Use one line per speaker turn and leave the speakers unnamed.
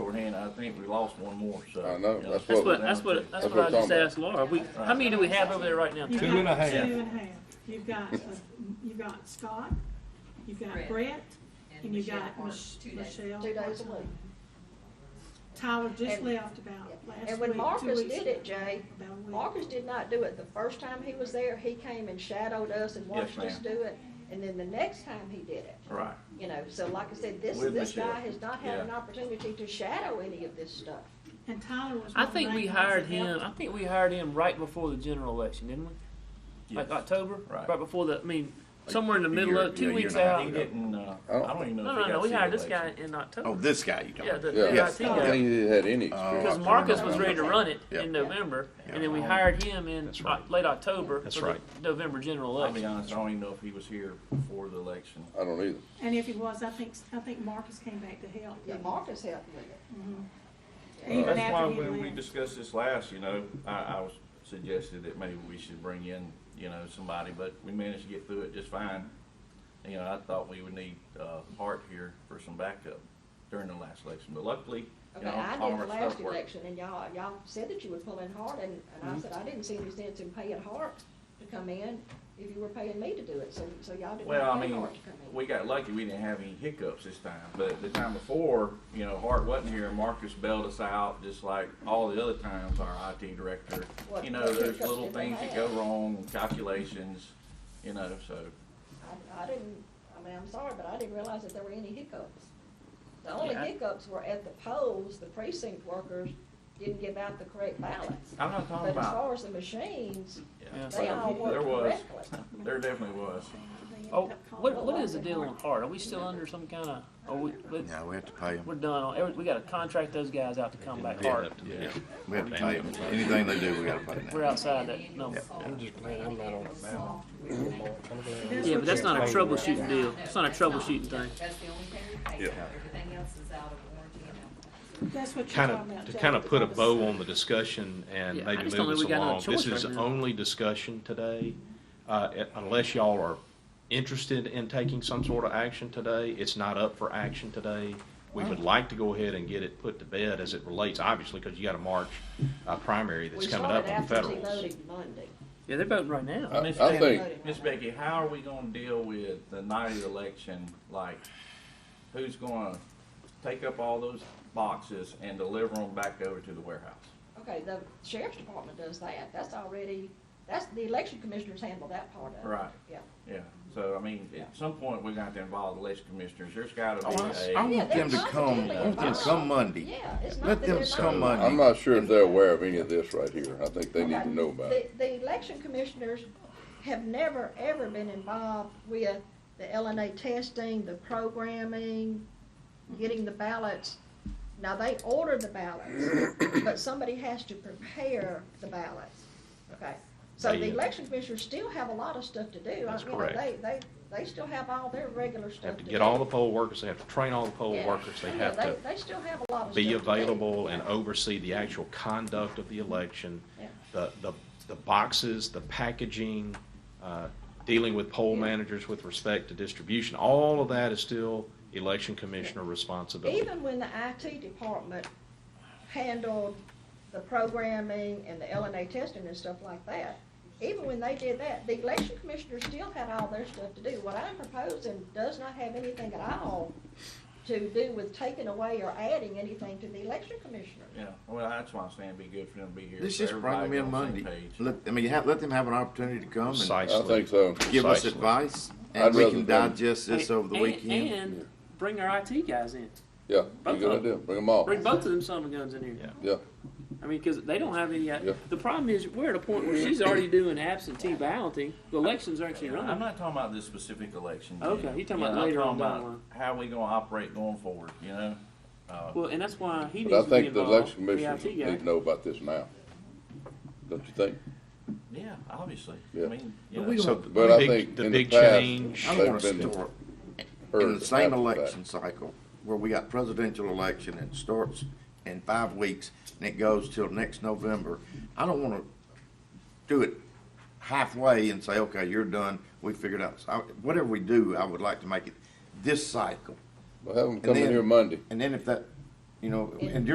think we lost one more, so.
I know,
you
that's
That's
what-
what, that's what, that's
That's
what I
what I'm
just
talking
asked Laura. We, how many do we have over there right now?
You've
Two and
got
a half.
Two and a half. You've got, uh, you've got Scott, you've got
Brett.
Brett, and you've
Michelle
got
Hart,
Mich-
two days.
Michelle.
two days a week.
Tyler just
And-
left about last week.
And when
two
Marcus
weeks
did
ago,
it, Jay,
about a week.
Marcus did not do it. The first time he was there, he came and shadowed us and
Yes,
watched us
ma'am.
do it. And then the next time he did it,
Right,
you know, so like I said, this,
With
this
Michelle.
guy has not had
Yeah.
an opportunity to shadow any of this stuff.
And Tyler was.
I
one of
think
the
we
main ones
hired
that helped
him, I think we hired him right before the general election, didn't we? Like
yes.
October?
Right.
before the, I mean, somewhere in the
a
middle
year-
of, two
yeah, a year
weeks
and a half
out.
He didn't, uh, I
don't-
don't even know
No,
if he
no,
got.
no, we
city
hired this guy
election.
in
Oh,
October.
this guy you
Yeah,
talking
the, the
about?
Yeah, I
IT guy.
think he had any experience.
Because
Oh,
Marcus was ready to run it
Yeah.
in November, and then we
Yeah.
hired him in
That's
Oc-
right.
late October
That's
for the
right.
November general
I'll be
election.
honest, I don't even know if he was here before the election.
I don't either.
And if he was, I think, I think Marcus came back to help.
Yeah, Marcus helped with it.
Even
That's why
after he
when we
left.
discussed this last, you know, I, I was suggested that maybe we should bring in, you know, somebody, but we managed to get through it just fine. You know, I thought we would need, uh, Hart here for some backup during the last election, but luckily, you
Okay,
know,
I
all
did
of
the
our
last
stuff worked. Mm-hmm.
election, and y'all, y'all said that you would pull in hard, and, and I said, I didn't see any sense in paying Hart to come in if you were paying me to do it, so, so y'all did
Well,
not
I
pay
mean,
Hart to come in.
we got lucky, we didn't have any hiccups this time, but the time before, you know, Hart wasn't here, Marcus bailed us out, just like all the other times our IT director.
What-
You know,
what
there's
hiccups
little
did they
things that go
have?
wrong, calculations, you know, so.
I, I didn't, I mean, I'm sorry, but I didn't realize that there were any hiccups. The only
Yeah, I-
hiccups were at the polls, the precinct workers didn't give out the correct ballots.
I'm not
But
talking
as
about.
far as the machines,
Yeah.
they all
There
worked
was,
correctly.
there definitely was.
They ended
Oh,
up calling
what,
him.
what is the deal on Hart? Are we still under some kind of, are we, we-
Yeah, we have to pay him.
we're done on, every- we gotta contract those guys out to come back hard.
Yeah, we have to pay him. Anything they do, we gotta pay
We're
them.
outside that number.
I'm just glad I'm not on it now.
That's
Yeah,
what
but that's
you're
not a
talking about.
troubleshooting deal. It's not a troubleshooting thing.
That's the only thing we pay for, everything else is out of warranty and out of.
That's what you're
kind
talking about.
of, to
Jay,
kind of
with
put a
all the
bow
stuff.
on the discussion and
Yeah, I
maybe
just
move
don't know
us
we got another
along. This
choice
is
right now.
only discussion today. Uh, it- Unless y'all are interested in taking some sort of action today, it's not up for action today. We
Oh.
would like to go ahead and get it put to bed as it relates, obviously, because you got a March uh, primary that's
We
coming
started
up on
after she
federals.
loaded Monday.
Yeah, they're voting right now.
I,
Miss
I think,
Becky, Miss Becky, how are we gonna deal with the night of the election? Like, who's gonna take up all those boxes and deliver them back over to the warehouse?
Okay, the sheriff's department does that, that's already, that's, the election commissioners handle that part of it.
Right.
Yeah.
Yeah, so I mean, at some point, we're gonna have to involve the election commissioners. There's gotta be
I I
a,
want them to come, I want them to come Monday.
Yeah, it's not
Let
that
them
they're not
come
involved.
Monday.
I'm not sure if they're aware of any of this right here. I think they need to know about it.
The, the election commissioners have never, ever been involved with the LNA testing, the programming, getting the ballots. Now, they order the ballots, but somebody has to prepare the ballots, okay? So the
They-
election commissioners still have a lot of stuff to do.
That's
You know,
correct.
They, they, they still have all their regular
They
stuff
Have
to
to
do.
get all the poll workers, they have to train all the poll
Yeah.
workers, they
Yeah,
have to
They still have a lot of stuff to
be
do.
available and oversee the actual conduct of the election,
Yeah.
the, the, the boxes, the packaging, uh, dealing with poll managers with respect to distribution, all of that is still election commissioner responsibility.
even when the IT department handled the programming and the LNA testing and stuff like that, even when they did that, the election commissioners still had all their stuff to do. What I'm proposing does not have anything at all to do with taking away or adding anything to the election commissioner.
yeah, well, that's why I'm saying it'd be good for them to be here.
Let's
so
just bring them
everybody's
in
on the same
Monday.
page.
Let, I mean, have, let them have an opportunity to come and
I
Precisely.
think so.
give us
Precisely.
advice,
I'd
and we
rather
can
them-
digest this over the
And-
weekend.
And bring our IT guys in.
Yeah,
Both
you're
of
gonna
them.
do, bring them all.
Bring both of them son of guns in here.
Yeah,
I mean, because they don't have any. uh,
Yeah.
The problem is, we're at a point where she's already doing absentee balloting. The elections are actually
I'm
running.
not talking about this specific election.
Okay,
Jim.
you talking about
Yeah, I'm
later on
talking
down
about
the line.
How we gonna operate going forward, you know?
Well, and that's why he
but I
needs to
think
be
the
involved.
election
The
commissioners
IT
need to
guy.
know about this now. Don't you think?
Yeah, obviously. I
Yeah.
mean, you
But
know.
we
So
don't,
the
But I
big,
think
the
in the
big
past-
change,
I don't want
They've
to
been
start in
Heard
the same
after that.
election cycle where we got presidential election and starts in five weeks and it goes till next November. I don't want to do it halfway and say, okay, you're done, we figured out. So I- Whatever we do, I would like to make it this cycle.
Well, have them
And
come in
then-
here Monday.
And then if that, you know, and